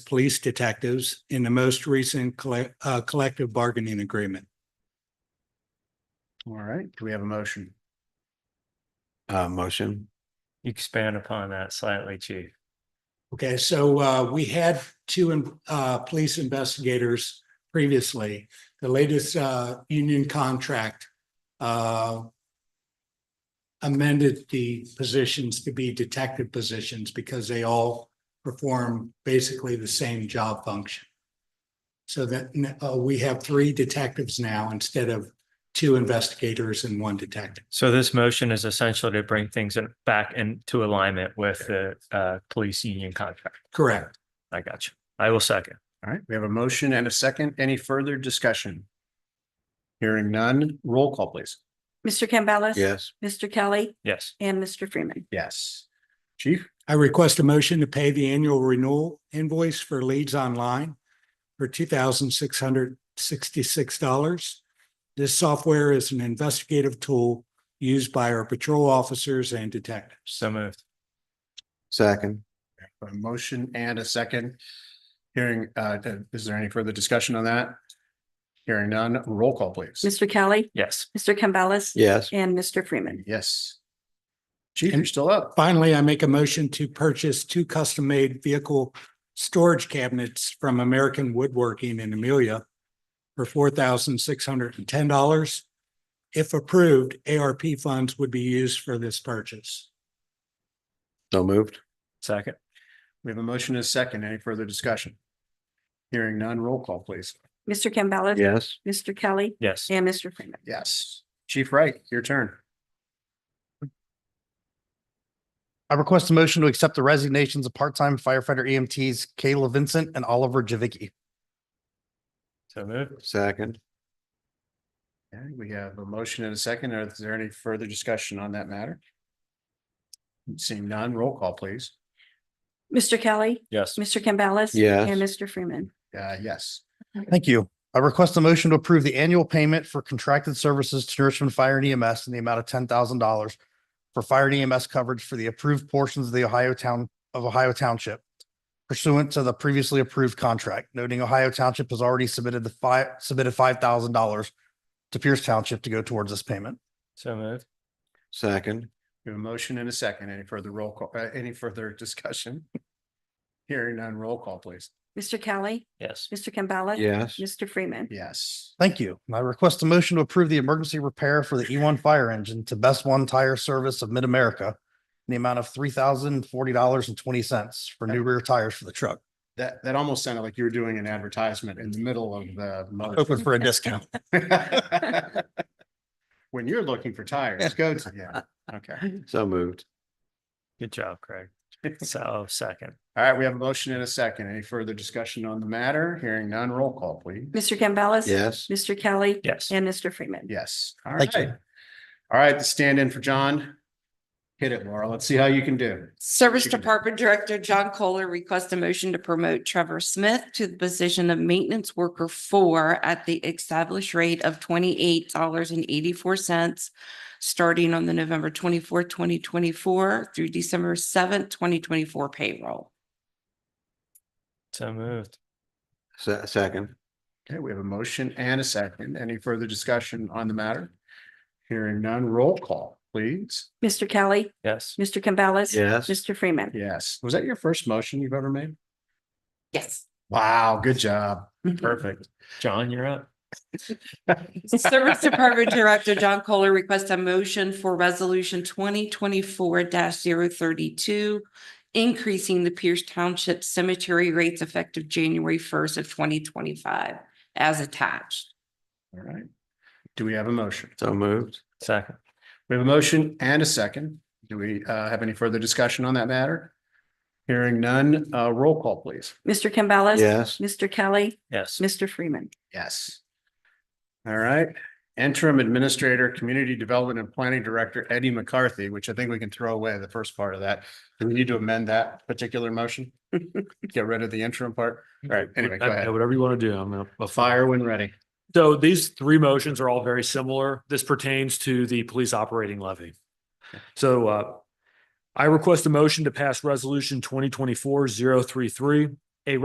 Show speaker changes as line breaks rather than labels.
police detectives in the most recent colle- uh, collective bargaining agreement.
All right, do we have a motion?
Uh, motion,
Expand upon that slightly, chief.
Okay, so uh, we had two in- uh, police investigators previously. The latest uh, union contract uh, amended the positions to be detective positions because they all perform basically the same job function. So that n- uh, we have three detectives now instead of two investigators and one detective.
So this motion is essential to bring things in- back into alignment with the uh police union contract.
Correct.
I got you. I will second.
All right, we have a motion and a second. Any further discussion? Hearing none, roll call please.
Mr. Campbell.
yes,
Mr. Kelly
Yes.
and Mr. Freeman.
Yes. Chief,
I request a motion to pay the annual renewal invoice for Leads Online for two thousand six hundred sixty-six dollars. This software is an investigative tool used by our patrol officers and detectives.
So moved.
second,
a motion and a second. Hearing, uh, is there any further discussion on that? Hearing none, roll call please.
Mr. Kelly,
Yes.
Mr. Campbell.
yes,
And Mr. Freeman.
Yes. Chief, you're still up.
Finally, I make a motion to purchase two custom-made vehicle storage cabinets from American Woodworking in Amelia for four thousand six hundred and ten dollars. If approved, ARP funds would be used for this purchase.
so moved,
Second.
We have a motion and a second. Any further discussion? Hearing none, roll call please.
Mr. Campbell.
yes,
Mr. Kelly
Yes.
and Mr. Freeman.
Yes. Chief Wright, your turn.
I request a motion to accept the resignations of part-time firefighter EMTs Kayla Vincent and Oliver Javicki.
So moved.
second,
Okay, we have a motion and a second. Is there any further discussion on that matter? Seeing none, roll call, please.
Mr. Kelly,
Yes.
Mr. Campbell.
Yes.
And Mr. Freeman.
Uh, yes.
Thank you. I request a motion to approve the annual payment for contracted services to Nourishment Fire and EMS in the amount of ten thousand dollars for fire and EMS coverage for the approved portions of the Ohio Town of Ohio Township pursuant to the previously approved contract, noting Ohio Township has already submitted the five, submitted five thousand dollars to Pierce Township to go towards this payment.
So moved.
second,
We have a motion and a second. Any further roll call, uh, any further discussion? Hearing none, roll call, please.
Mr. Kelly,
Yes.
Mr. Campbell.
yes,
Mr. Freeman.
Yes.
Thank you. And I request a motion to approve the emergency repair for the E one fire engine to Best One Tire Service of Mid-America in the amount of three thousand forty dollars and twenty cents for new rear tires for the truck.
That, that almost sounded like you were doing an advertisement in the middle of the.
Open for a discount.
motion. When you're looking for tires, go to, yeah, okay.
so moved,
Good job, Craig. So second.
All right, we have a motion and a second. Any further discussion on the matter? Hearing none, roll call, please.
Mr. Campbell.
yes,
Mr. Kelly
Yes.
and Mr. Freeman.
Yes. All
Thank you.
right. All right, stand in for John. Hit it, Laura. Let's see how you can do.
Service
Chicken.
Department Director John Kohler requests a motion to promote Trevor Smith to the position of Maintenance Worker Four at the established rate of twenty-eight dollars and eighty-four cents, starting on the November twenty-fourth, twenty twenty-four through December seventh, twenty twenty-four payroll.
So moved.
se- second,
Okay, we have a motion and a second. Any further discussion on the matter? Hearing none, roll call, please.
Mr. Kelly,
Yes.
Mr. Campbell.
yes,
Mr. Freeman.
Yes. Was that your first motion you've ever made?
Yes.
Wow, good job. Perfect.
John, you're up.
Service Department Director John Kohler requests a motion for Resolution twenty twenty-four 32 increasing the Pierce Township Cemetery rates effective January first of twenty twenty-five as attached.
All right. Do we have a motion?
so moved,
Second.
We have a motion and a second. Do we uh have any further discussion on that matter? Hearing none, uh roll call, please.
Mr. Campbell.
yes,
Mr. Kelly,
Yes.
Mr. Freeman.
Yes. All right, interim administrator, community development and planning director Eddie McCarthy, which I think we can throw away the first part of that. Do we need to amend that particular motion? Get rid of the interim part? All right, anyway, go
I- I-
ahead.
Whatever you want to do, I'm up. up for it.
Fire when ready.
So these three motions are all very similar. This pertains to the police operating levy. So uh, I request a motion to pass resolution 2024 033,